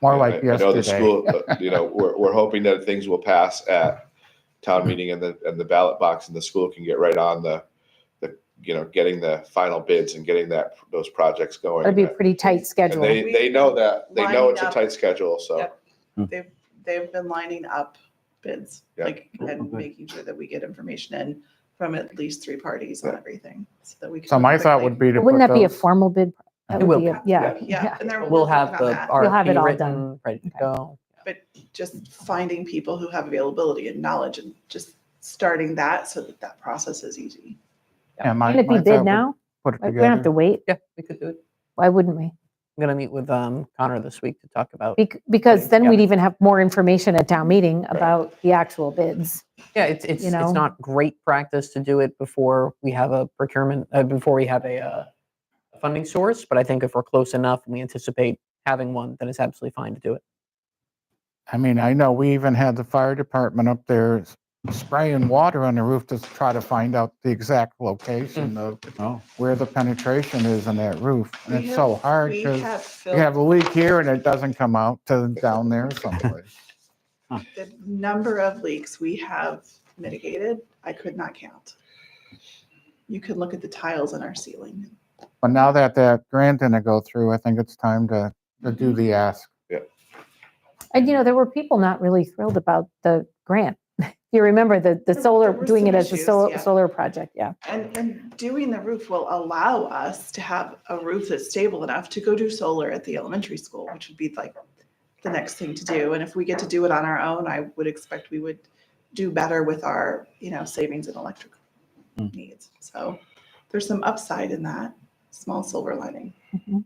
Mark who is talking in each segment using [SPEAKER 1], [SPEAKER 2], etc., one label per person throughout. [SPEAKER 1] more
[SPEAKER 2] I-
[SPEAKER 1] like
[SPEAKER 2] I know the
[SPEAKER 1] yesterday.
[SPEAKER 2] school, uh, you know, we're, we're hoping that things will pass at
[SPEAKER 1] Hmm.
[SPEAKER 2] town meeting and the, and the ballot box and the school can get right on the, the, you know, getting the final bids and getting that, those projects going.
[SPEAKER 3] It'd be a pretty tight
[SPEAKER 2] And
[SPEAKER 3] schedule.
[SPEAKER 2] they, they know that, they know it's a
[SPEAKER 4] Lined up.
[SPEAKER 2] tight schedule, so.
[SPEAKER 4] Yep. They've, they've been lining up bids,
[SPEAKER 2] Yeah.
[SPEAKER 4] like, and
[SPEAKER 5] Okay.
[SPEAKER 4] making sure that we get information in from at least three parties on everything, so that we. can
[SPEAKER 1] So my
[SPEAKER 4] move
[SPEAKER 1] thought
[SPEAKER 4] quickly.
[SPEAKER 1] would be to.
[SPEAKER 3] Wouldn't
[SPEAKER 1] put
[SPEAKER 3] that be a
[SPEAKER 1] those-
[SPEAKER 3] formal bid? That
[SPEAKER 5] It
[SPEAKER 3] would
[SPEAKER 5] will
[SPEAKER 3] be a- Yeah.
[SPEAKER 4] Yeah, and they're.
[SPEAKER 5] We'll have
[SPEAKER 4] working
[SPEAKER 5] the
[SPEAKER 4] on that.
[SPEAKER 3] You'll have it
[SPEAKER 5] RFP
[SPEAKER 3] all
[SPEAKER 5] written, ready to
[SPEAKER 3] Okay.
[SPEAKER 5] go.
[SPEAKER 4] Just finding people who have availability and knowledge and just starting that so that that process is easy.
[SPEAKER 1] yeah, my-
[SPEAKER 3] Can it
[SPEAKER 1] my
[SPEAKER 3] be
[SPEAKER 1] thought
[SPEAKER 3] bid
[SPEAKER 1] would
[SPEAKER 3] now?
[SPEAKER 1] Put it
[SPEAKER 3] Like, We don't have to
[SPEAKER 1] together.
[SPEAKER 3] wait.
[SPEAKER 5] Yeah, we could do it.
[SPEAKER 3] Why wouldn't we?
[SPEAKER 5] I'm going to meet with um, Connor this week to talk about,
[SPEAKER 3] Bec- Because then
[SPEAKER 5] Yeah.
[SPEAKER 3] we'd even have more information at town meeting about the actual bids.
[SPEAKER 5] yeah, it's, it's,
[SPEAKER 3] you
[SPEAKER 5] it's
[SPEAKER 3] know.
[SPEAKER 5] not great practice to do it before we have a procurement, uh, before we have a uh, a funding source, but I think if we're close enough and we anticipate having one, then it's absolutely fine to do it.
[SPEAKER 1] I mean, I know we even had the fire department up there s- spraying water on the roof to try to find out the exact location
[SPEAKER 2] Mm.
[SPEAKER 1] of
[SPEAKER 6] Oh.
[SPEAKER 1] where the penetration is in that roof.
[SPEAKER 4] We
[SPEAKER 1] And it's
[SPEAKER 4] have-
[SPEAKER 1] so hard
[SPEAKER 4] We
[SPEAKER 1] because
[SPEAKER 4] have
[SPEAKER 1] you have
[SPEAKER 4] filled
[SPEAKER 1] a leak here and it doesn't come out to down there someplace.
[SPEAKER 4] the number of leaks we have mitigated, I could not count. You can look at the tiles in our ceiling.
[SPEAKER 1] But now that that grant didn't go through, I think it's time to, to do
[SPEAKER 2] Mm.
[SPEAKER 1] the ask.
[SPEAKER 3] And you know, there were people not really thrilled about the grant. You remember the, the
[SPEAKER 4] There-
[SPEAKER 3] solar,
[SPEAKER 4] there were
[SPEAKER 3] doing it
[SPEAKER 4] some
[SPEAKER 3] as a
[SPEAKER 4] issues,
[SPEAKER 3] solar,
[SPEAKER 4] yeah.
[SPEAKER 3] solar project, yeah.
[SPEAKER 4] And, and doing the roof will allow us to have a roof that's stable enough to go do solar at the elementary school, which would be like the next thing to do. And if we get to do it on our own, I would expect we would do better with our, you know, savings in electric
[SPEAKER 6] Mm.
[SPEAKER 4] needs. So there's some upside in that, small silver lining.
[SPEAKER 3] Mhm.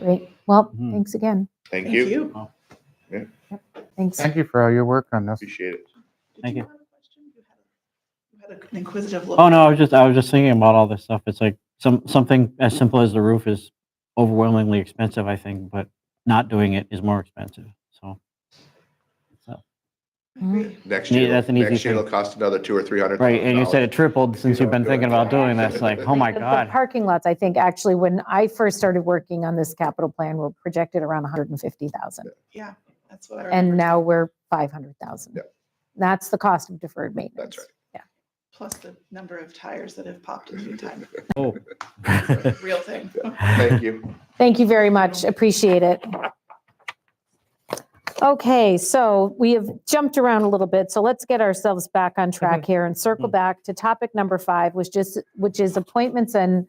[SPEAKER 3] Great. Well,
[SPEAKER 6] Mhm.
[SPEAKER 3] thanks again.
[SPEAKER 2] Thank you.
[SPEAKER 3] Thanks.
[SPEAKER 1] Thank you for all your work on this.
[SPEAKER 2] Appreciate it.
[SPEAKER 4] Did
[SPEAKER 6] Thank you.
[SPEAKER 4] have a question? You had a- you had an inquisitive look.
[SPEAKER 6] Oh no, I was just I was just thinking about all this stuff. It's like some something as simple as the roof is overwhelmingly expensive, I think, but not doing it is more expensive. So
[SPEAKER 4] Agree.
[SPEAKER 2] Next
[SPEAKER 6] Yeah,
[SPEAKER 2] year,
[SPEAKER 6] that's an easy
[SPEAKER 2] next year
[SPEAKER 6] thing.
[SPEAKER 2] it'll cost another two or three hundred.
[SPEAKER 6] right, and you said
[SPEAKER 2] dollars.
[SPEAKER 6] it tripled since you've been thinking about doing that. It's like, oh my
[SPEAKER 3] The- the
[SPEAKER 6] god,
[SPEAKER 3] Parking lots, I think, actually, when I first started working on this capital plan, were projected around 150,000.
[SPEAKER 4] Yeah, that's what I remember.
[SPEAKER 3] And now we're 500,000.
[SPEAKER 2] Yeah.
[SPEAKER 3] That's the cost of deferred maintenance.
[SPEAKER 2] That's right.
[SPEAKER 4] Plus the number of tires that have popped a few times.
[SPEAKER 6] oh.
[SPEAKER 4] Real thing.
[SPEAKER 2] Thank you.
[SPEAKER 3] Thank you very much. Appreciate it. Okay, so we have jumped around a little bit, so let's get ourselves back on track here and circle
[SPEAKER 6] Mhm.
[SPEAKER 3] back to topic number five, which just, which is appointments and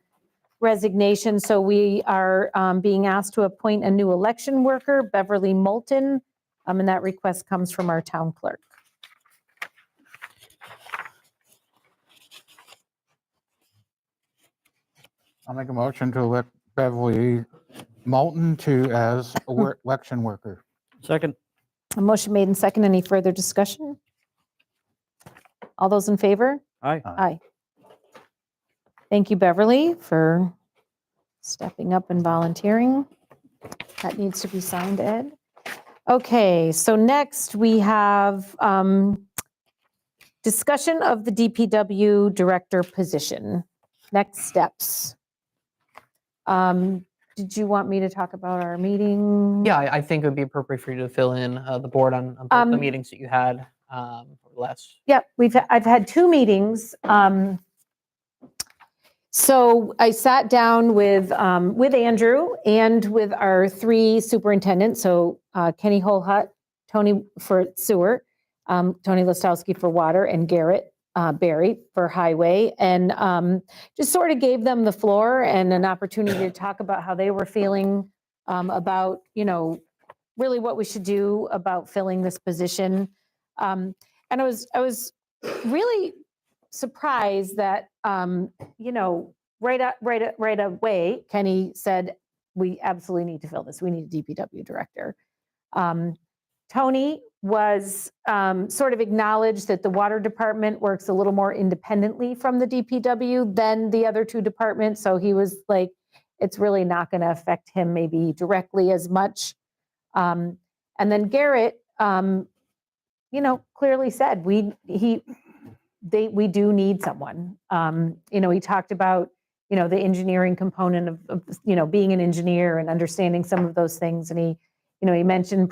[SPEAKER 3] resignation. So we are um, being asked to appoint a new election worker, Beverly Moulton, um, and that request comes from our town clerk.
[SPEAKER 1] I'll make a motion to elect Beverly Moulton to as a wor- election worker.
[SPEAKER 6] Second,
[SPEAKER 3] A motion made and second. Any further discussion? All those in favor?
[SPEAKER 6] aye.
[SPEAKER 3] Aye. Thank you, Beverly, for stepping up and volunteering. That needs to be signed, Ed. Okay, so next we have um, discussion of the DPW director position. Next steps. Um, Did you want me to talk about our meeting?
[SPEAKER 5] Yeah, I, I think it would be appropriate for you to fill in uh, the board on, on both the
[SPEAKER 3] Um,
[SPEAKER 5] meetings that you had um, over the last
[SPEAKER 3] Yep, we've, I've had two meetings. um, So I sat down with, um, with Andrew and with our three superintendents, so uh, Kenny Holhut, Tony for sewer, um, Tony Listowski for water, and Garrett uh, Barry for highway. And um, just sort of gave them the floor and an opportunity to talk about how they were feeling um, about, you know, really what we should do about filling this position. Um, and I was I was really surprised that um, you know right up, right a- right away Kenny said we absolutely need to fill this. We need a DPW director. Um, Tony was um, sort of acknowledged that the water department works a little more independently from the DPW than the other two departments, so he was like, it's really not going to affect him maybe directly as much. Um, and then Garrett um, you know, clearly said, we, he, they, we do need someone. Um, You know, he talked about, you know, the engineering component of, of, you know, being an engineer and understanding some of those things. And he, you know, he mentioned